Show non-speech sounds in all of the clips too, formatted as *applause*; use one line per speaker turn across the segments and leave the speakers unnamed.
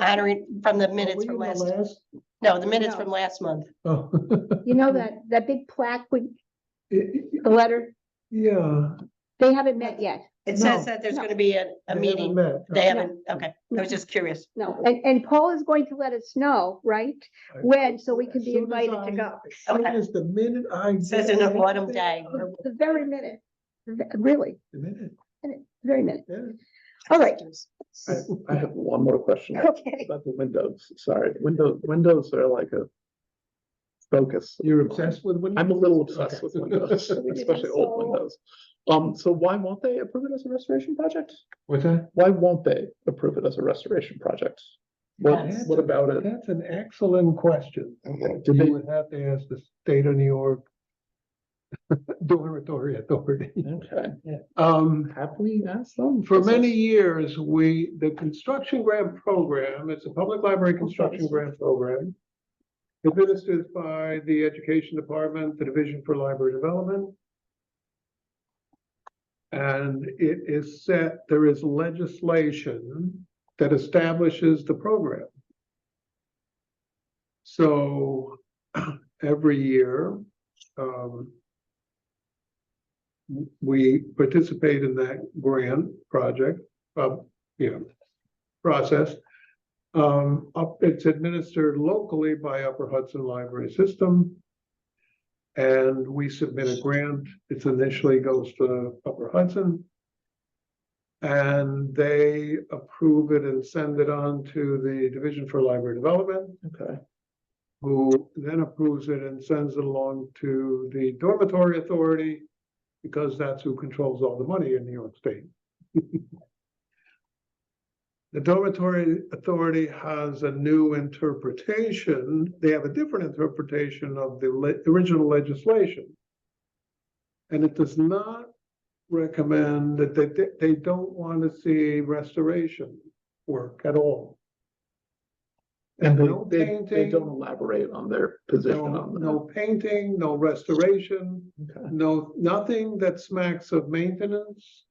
honoring from the minutes from last, no, the minutes
No.
from last month.
Oh, *laughs*
You know that, that big plaque with
it- it-
the letter,
yeah.
they haven't met yet.
It says
No.
that there's
No.
gonna be a,
they
a
haven't
meeting.
met.
They
No.
haven't, okay, I was just curious.
No, and, and Paul is going to let us know, right?
Right.
When, so we can
As
be
soon as
invited to
I-
go.
As soon
Okay.
as the minute I.
Says
get
an autumn
anything,
day.
I will-
The very minute, The- really,
The minute,
very minute.
yeah.
All right.
I,
*laughs*
I have one more question
Okay.
*laughs* about the windows, sorry, window, windows are like a focus.
You're obsessed with windows?
I'm a little obsessed with
Okay.
*laughs* windows, especially old
so-
windows. Um, so why won't they approve it as a restoration project?
*laughs* What's that?
Why won't they approve it as a restoration project? What,
That's-
what about it?
That's an excellent question.
Okay, Did
You
they,
would have to ask the state of New York *laughs* dormitory authority.
okay,
Um,
have we asked them?
For
This is-
many years, we, the construction grant program, it's a public library construction grant program. Administered by the Education Department, the Division for Library Development. And it is set, there is legislation that establishes the program. So *clears throat* every year, um, we participate in that grant project, uh, you know, process. Um, up, it's administered locally by Upper Hudson Library System. And we submit a grant, it initially goes to Upper Hudson. And they approve it and send it on to the Division for Library Development
Okay,
who then approves it and sends it along to the dormitory authority because that's who controls all the money in New York State. *laughs* The dormitory authority has a new interpretation. They have a different interpretation of the le- original legislation. And it does not recommend that they, they- they don't want to see restoration work at all.
and
no
they, they, they
painting.
don't elaborate on their position
No,
on that.
no painting, no restoration,
Okay.
no, nothing that smacks of maintenance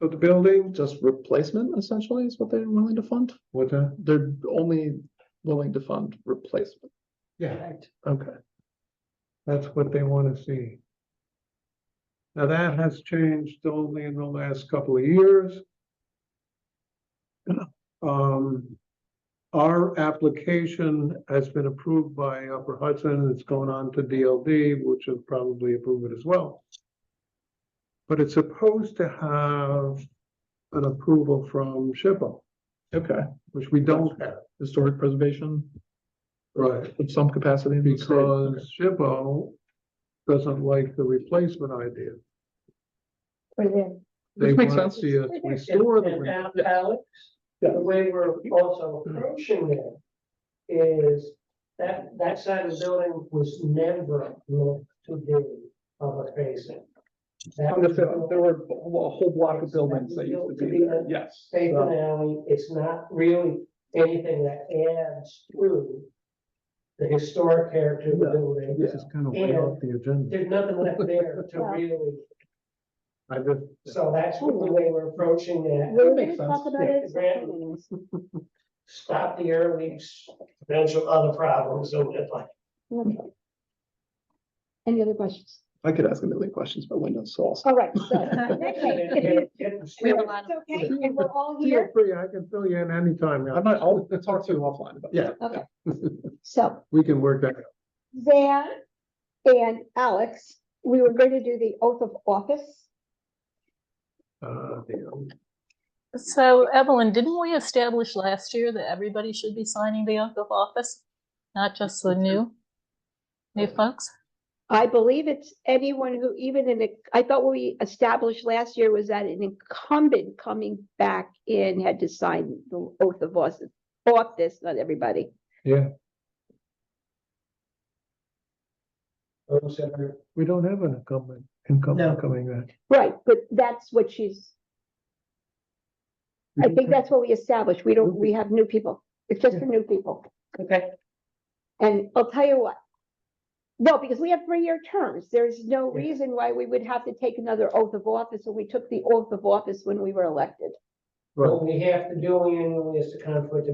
of the building.
Just replacement essentially is what they're willing to fund?
What the?
They're only willing to fund replacement.
Yeah,
Okay.
that's what they want to see. Now that has changed only in the last couple of years. *clears throat* Um, our application has been approved by Upper Hudson. It's going on to DLD, which will probably approve it as well. But it's supposed to have an approval from SHPO,
Okay.
which we don't have.
Historic preservation
Right.
of some capacity. in the state.
Because SHPO doesn't like the replacement idea. They
Which makes
want to
sense.
see us restore the.
And-
re-
and Alex,
Yeah.
the way we're also approaching it is that, that side of the building was never meant to be public facing. That
There
was
there were a whole block of buildings that used to be there, yes. Uh,
Safe and alley, it's not really anything that adds to the historic character of the
Yeah.
building.
This is kind of way off the agenda.
There's nothing left there
*laughs*
to really,
I just,
so that's the way we're approaching that.
We're
makes
gonna talk
sense.
about
Yeah.
it.
Grant- Stop the air leaks, potential other problems, and it's like,
Okay. Any other questions?
I could ask a million questions about windows, so I'll.
All right,
*laughs*
so. next one. If
*laughs* We have a
Yeah.
lot
It's
of,
okay, and we're all
feel
here,
free, I can fill you in anytime.
I might, I'll talk to you offline about that.
Yeah. Okay. so.
We can work that. out.
Zan and Alex, we were going to do the oath of office.
Uh, you
So Evelyn, didn't we establish last year that everybody should be signing the oath of office? Not just the new, new folks?
I believe it's anyone who even in, a- I thought what we established last year was that an incumbent coming back in had to sign the oath of office. Office, not everybody.
know, We don't have an incumbent, incumbent coming back.
Right, but that's what she's, I think that's what we established. We don't, we have new people. It's just for new people.
okay,
And I'll tell you what. No, because we have three-year terms. There's no
Yeah.
reason why we would have to take another oath of office, and we took the oath of office when we were elected.
Right.
What we have to do annually is the conflict of